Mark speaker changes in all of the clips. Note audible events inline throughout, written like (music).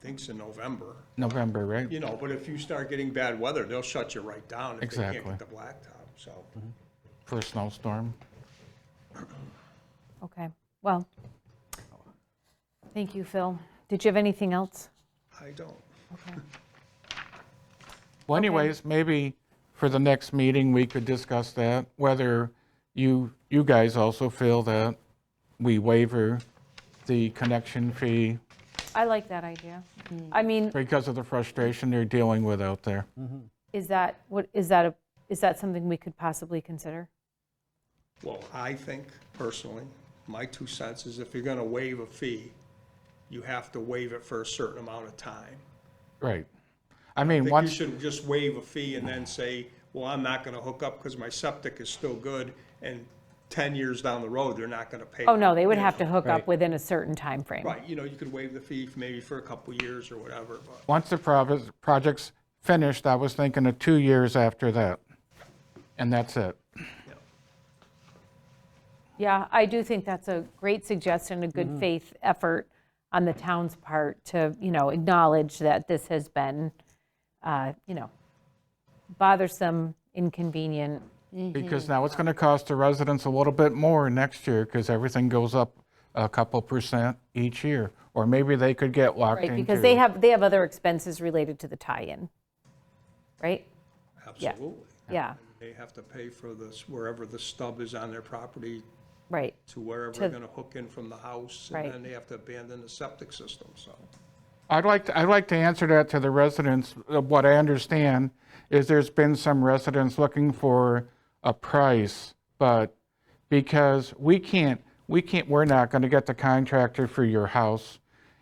Speaker 1: think's in November,
Speaker 2: November, right?
Speaker 1: you know, but if you start getting bad weather, they'll shut you right down if they can't
Speaker 2: Exactly.
Speaker 1: get the blacktop, so.
Speaker 2: For a snowstorm.
Speaker 3: Okay, well, thank you, Phil. Did you have anything else?
Speaker 1: I don't.
Speaker 3: Okay.
Speaker 2: Well, anyways, maybe for the next meeting, we could discuss that, whether you, you guys also feel that we waiver the connection fee
Speaker 3: I like that idea. I mean,
Speaker 2: because of the frustration they're dealing with out there.
Speaker 3: is that, what, is that, a is that something we could possibly consider?
Speaker 1: Well, I think personally, my two cents is if you're gonna waive a fee, you have to waive it for a certain amount of time.
Speaker 2: Right. I mean,
Speaker 1: I think you
Speaker 2: once,
Speaker 1: should just waive a fee and then say, well, I'm not gonna hook up because my septic is still good, and ten years down the road, they're not gonna pay.
Speaker 3: Oh, no, they would
Speaker 1: You
Speaker 3: have
Speaker 1: know,
Speaker 3: to hook
Speaker 2: Right.
Speaker 3: up within a certain time frame.
Speaker 1: Right, you know, you could waive the fee maybe for a couple years or whatever, but,
Speaker 2: once the prov- project's finished, I was thinking of two years after that. And that's it.
Speaker 1: you know.
Speaker 3: Yeah, I do think that's a great suggestion, a good faith effort on the town's part to, you know, acknowledge that this has been, uh, you know, bothersome, inconvenient.
Speaker 2: Because
Speaker 3: Mm-hmm.
Speaker 2: now it's going to cost the residents a little bit more next year because everything goes up a couple percent each year. Or maybe they could get locked
Speaker 3: Right,
Speaker 2: into.
Speaker 3: because they have, they have other expenses related to the tie-in, right?
Speaker 1: absolutely.
Speaker 3: Yeah,
Speaker 1: They have to pay for this, wherever the stub is on their property,
Speaker 3: right.
Speaker 1: to wherever they're
Speaker 3: To-
Speaker 1: gonna hook in from the house, and
Speaker 3: Right.
Speaker 1: then they have to abandon the septic system, so.
Speaker 2: I'd like, to- I'd like to answer that to the residents. Uh, What I understand is there's been some residents looking for a price, but because we can't, we can't, we're not going to get the contractor for your house.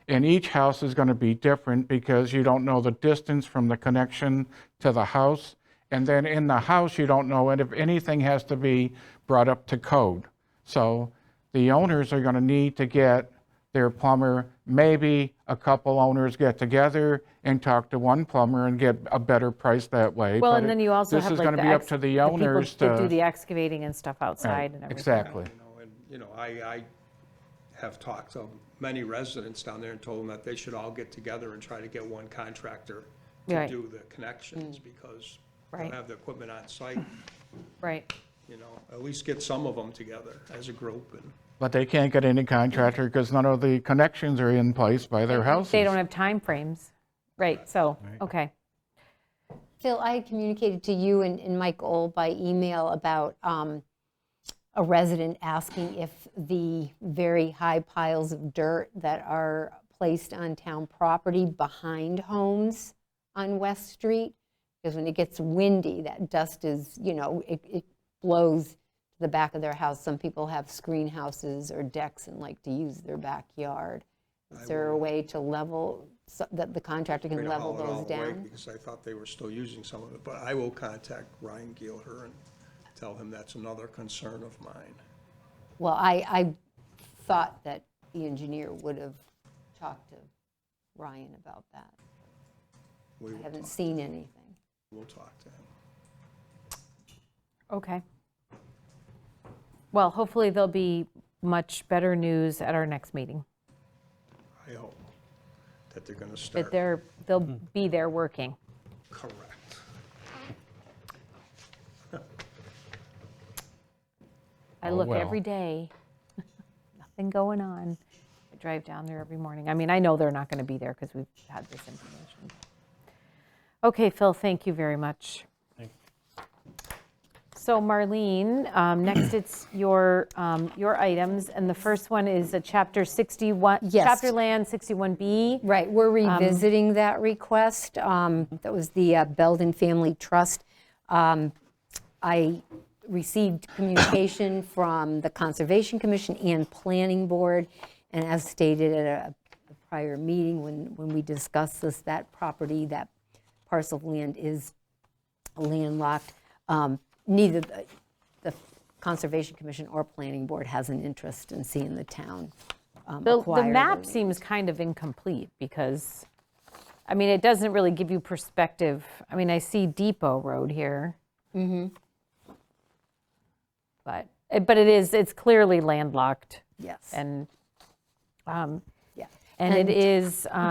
Speaker 2: And each house is going to be different because you don't know the distance from the connection to the house. And then in the house, you don't know and if anything has to be brought up to code. So the owners are going to need to get their plumber. Maybe a couple owners get together and talk to one plumber and get a better price that way.
Speaker 3: Well,
Speaker 2: But
Speaker 3: and then you also have
Speaker 2: This is
Speaker 3: like
Speaker 2: going
Speaker 3: the.
Speaker 2: to be up
Speaker 3: ex-
Speaker 2: to the
Speaker 3: people
Speaker 2: owners
Speaker 3: that
Speaker 2: to.
Speaker 3: Do the excavating and stuff outside and everything.
Speaker 2: Exactly.
Speaker 1: You know, and, you know, I, I have talked to many residents down there and told them that they should all get together and try to get one contractor to
Speaker 3: Right. Mm.
Speaker 1: do the connections, because they don't
Speaker 3: Right.
Speaker 1: have the equipment on site,
Speaker 3: Right,
Speaker 1: you know, at least get some of them together as a group, and
Speaker 2: But they can't get any contractor because none of the connections are in place by their houses.
Speaker 3: they don't have timeframes, right, so, okay.
Speaker 4: Phil, I had communicated to you and, and Mike Old by email about um, a resident asking if the very high piles of dirt that are placed on town property behind homes on West Street, because when it gets windy, that dust is, you know, it, it blows to the back of their house. Some people have screen houses or decks and like to use their backyard. Is there a way to level, so that the contractor
Speaker 1: way
Speaker 4: can
Speaker 1: to
Speaker 4: level
Speaker 1: haul it all
Speaker 4: those
Speaker 1: away,
Speaker 4: down?
Speaker 1: because I thought they were still using some of it, but I will contact Ryan Gielher and tell him that's another concern of mine.
Speaker 4: Well, I, I thought that the engineer would have talked to Ryan about that.
Speaker 1: We
Speaker 4: I
Speaker 1: will,
Speaker 4: haven't seen anything.
Speaker 1: we'll talk to him.
Speaker 3: Okay. Well, hopefully there'll be much better news at our next meeting,
Speaker 1: I hope that they're gonna
Speaker 3: that
Speaker 1: start
Speaker 3: they're, they'll
Speaker 2: Hmm.
Speaker 3: be there working.
Speaker 1: correct.
Speaker 3: I
Speaker 2: Oh,
Speaker 3: look
Speaker 2: well.
Speaker 3: every day, (laughs) nothing going on. I drive down there every morning. I mean, I know they're not going to be there because we've had this information. Okay, Phil, thank you very much. So Marlene, um, next it's your, um, your items, and the first one is a Chapter 61,
Speaker 4: Yes.
Speaker 3: Chapter Land 61B.
Speaker 4: Right, we're
Speaker 3: Um,
Speaker 4: revisiting that request. Um, That was the uh, Belden Family Trust. Um, I received communication (coughs) from the Conservation Commission and Planning Board, and as stated at a a prior meeting, when, when we discussed this, that property, that parcel of land is landlocked. Um, Neither the- the Conservation Commission or Planning Board has an interest in seeing the town um,
Speaker 3: The,
Speaker 4: acquire
Speaker 3: the map
Speaker 4: land.
Speaker 3: seems kind of incomplete because, I mean, it doesn't really give you perspective. I mean, I see Depot Road here. But, eh, but it is, it's clearly landlocked
Speaker 4: Yes,
Speaker 3: and, um,
Speaker 4: yeah.
Speaker 3: and it is,